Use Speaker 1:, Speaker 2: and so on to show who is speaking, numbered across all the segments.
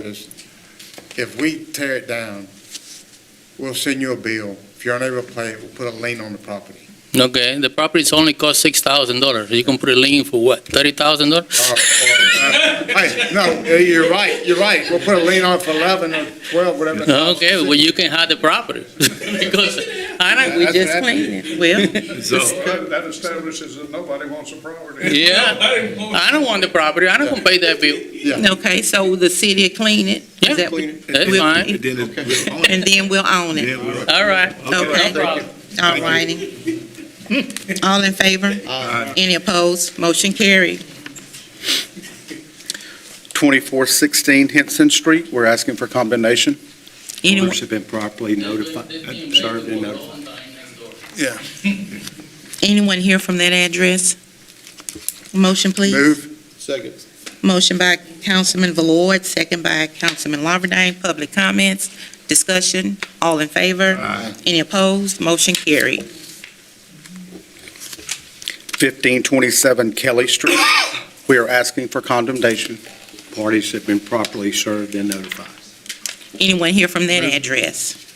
Speaker 1: is, if we tear it down, we'll send you a bill. If you're unable to pay it, we'll put a lien on the property.
Speaker 2: Okay, the property's only cost six thousand dollars. You can put a lien for what, thirty thousand dollars?
Speaker 1: Or- or, uh, Hey, no, you're right, you're right. We'll put a lien on it for 11 or 12, whatever. the cost
Speaker 2: Okay,
Speaker 1: is.
Speaker 2: well, you can have the property. Because, I don't,
Speaker 3: We
Speaker 1: That's
Speaker 3: just
Speaker 1: what happened.
Speaker 3: cleaned it. Well,
Speaker 4: That that establishes that nobody wants a property.
Speaker 2: yeah, I don't want the property. I don't gonna pay that bill.
Speaker 3: okay, so the city will clean it. Is
Speaker 2: Yeah.
Speaker 3: that what-
Speaker 2: That's
Speaker 3: we'll-
Speaker 2: fine.
Speaker 5: And then it- we'll own it.
Speaker 3: And then we'll own it.
Speaker 5: Then we'll-
Speaker 2: All right.
Speaker 3: Okay.
Speaker 2: No problem.
Speaker 3: All righty. All in favor? Any opposed? Motion carried.
Speaker 6: 2416 Henson Street, we're asking for condemnation.
Speaker 3: Anyone,
Speaker 6: Owners have been properly notified, uh, served and notified.
Speaker 3: anyone here from that address? Motion, please.
Speaker 1: Move,
Speaker 5: Second.
Speaker 3: Motion by Councilman Valord, second by Councilman Lawberdine. Public comments, discussion, all in favor? Any opposed? Motion carried.
Speaker 6: 1527 Kelly Street, we are asking for condemnation. Parties have been properly served and notified.
Speaker 3: Anyone here from that address?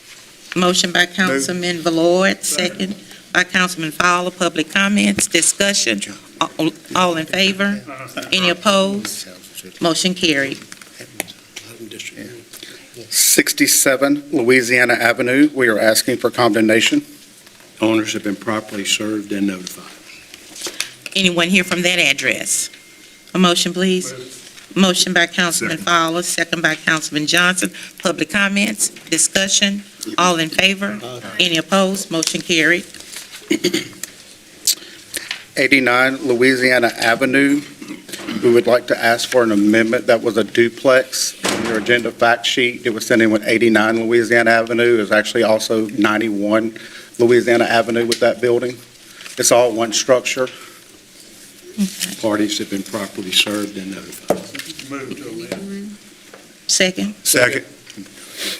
Speaker 3: Motion by Councilman Valord, second by Councilman Fowler. Public comments, discussion, all- all in favor? Any opposed? Motion carried.
Speaker 6: 67 Louisiana Avenue, we are asking for condemnation. Owners have been properly served and notified.
Speaker 3: Anyone here from that address? A motion, please. Motion by Councilman Fowler, second by Councilman Johnson. Public comments, discussion, all in favor? Any opposed? Motion carried.
Speaker 6: 89 Louisiana Avenue. We would like to ask for an amendment that was a duplex. In Your agenda fact sheet, it was sent in with 89 Louisiana Avenue, is actually also 91 Louisiana Avenue with that building. It's all one structure. Parties have been properly served and notified.
Speaker 4: Move to amend.
Speaker 3: Second,
Speaker 1: second.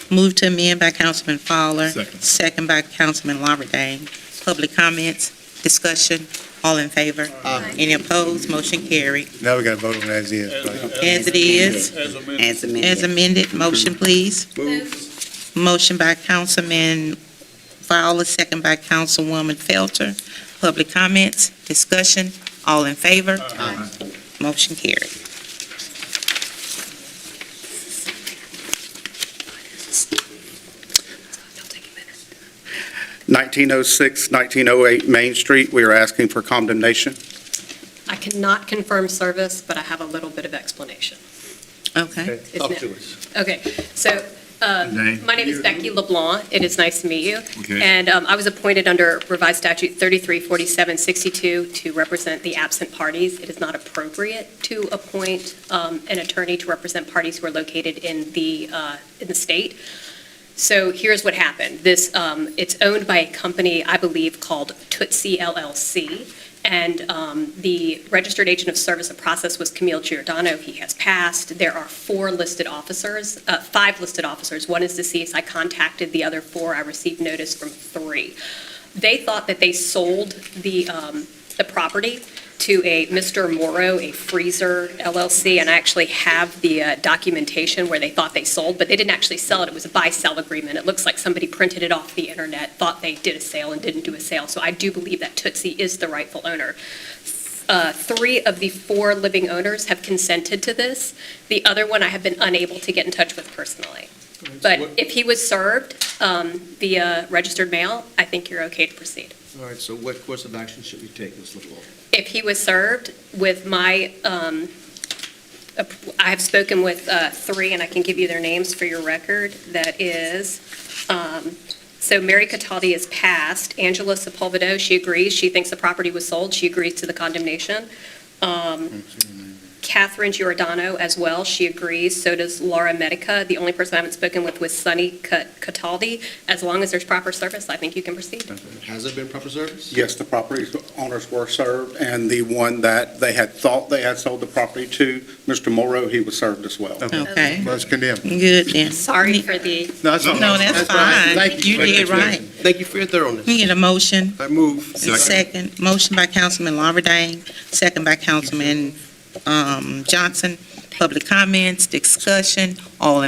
Speaker 3: moved to amend by Councilman Fowler.
Speaker 5: Second.
Speaker 3: by Councilman Lawberdane. Public comments, discussion, all in favor? Any opposed? Motion carried.
Speaker 1: Now we got to vote on as is.
Speaker 3: As it is,
Speaker 4: As amended.
Speaker 7: As
Speaker 3: as
Speaker 7: amended.
Speaker 3: amended, motion, please.
Speaker 4: Move.
Speaker 3: Motion by Councilman Fowler, second by Councilwoman Felter. Public comments, discussion, all in favor? Motion carried.
Speaker 6: oh 1906, 1908 Main Street, we are asking for condemnation.
Speaker 8: I cannot confirm service, but I have a little bit of explanation.
Speaker 3: Okay.
Speaker 8: It's no- Okay, so, uh,
Speaker 5: Name?
Speaker 8: my name is Becky LeBlanc. It is nice to meet you.
Speaker 5: Okay.
Speaker 8: And um, I was appointed under revised statute 334762 to represent the absent parties. It is not appropriate to appoint um, an attorney to represent parties who are located in the, uh, in the state. So here's what happened. This, um, it's owned by a company, I believe, called Tootsie LLC. And um, the registered agent of service of process was Camille Giordano. He has passed. There are four listed officers, uh, five listed officers. One is deceased. I contacted the other four. I received notice from three. They thought that they sold the, um, the property to a Mr. Morrow, a freezer LLC, and I actually have the uh, documentation where they thought they sold, but they didn't actually sell it. It was a buy-sell agreement. It looks like somebody printed it off the internet, thought they did a sale and didn't do a sale. So I do believe that Tootsie is the rightful owner. Uh, Three of the four living owners have consented to this. The other one I have been unable to get in touch with personally. But if he was served um, via registered mail, I think you're okay to proceed.
Speaker 9: All right, so what course of action should we take, Ms. LeBlanc?
Speaker 8: If he was served with my, um, ap- I have spoken with uh, three, and I can give you their names for your record. That is, um, so Mary Cataldi is passed. Angela Sepulvedo, she agrees. She thinks the property was sold. She agrees to the condemnation. Um, Catherine Giordano as well, she agrees. So does Laura Medica. The only person I haven't spoken with was Sunny Ca- Cataldi. As long as there's proper service, I think you can proceed.
Speaker 9: Has it been proper service?
Speaker 6: Yes, the property owners were served, and the one that they had thought they had sold the property to, Mr. Morrow, he was served as well.
Speaker 3: Okay,
Speaker 1: Let's condemn.
Speaker 3: good then.
Speaker 8: Sorry for the
Speaker 1: No, that's all.
Speaker 3: No, that's
Speaker 1: right.
Speaker 3: fine. You did right.
Speaker 9: Thank you for your thoroughness.
Speaker 3: We get a motion,
Speaker 9: I move.
Speaker 3: second, motion by Councilman Lawberdane, second by Councilman um, Johnson. public comments, discussion, all in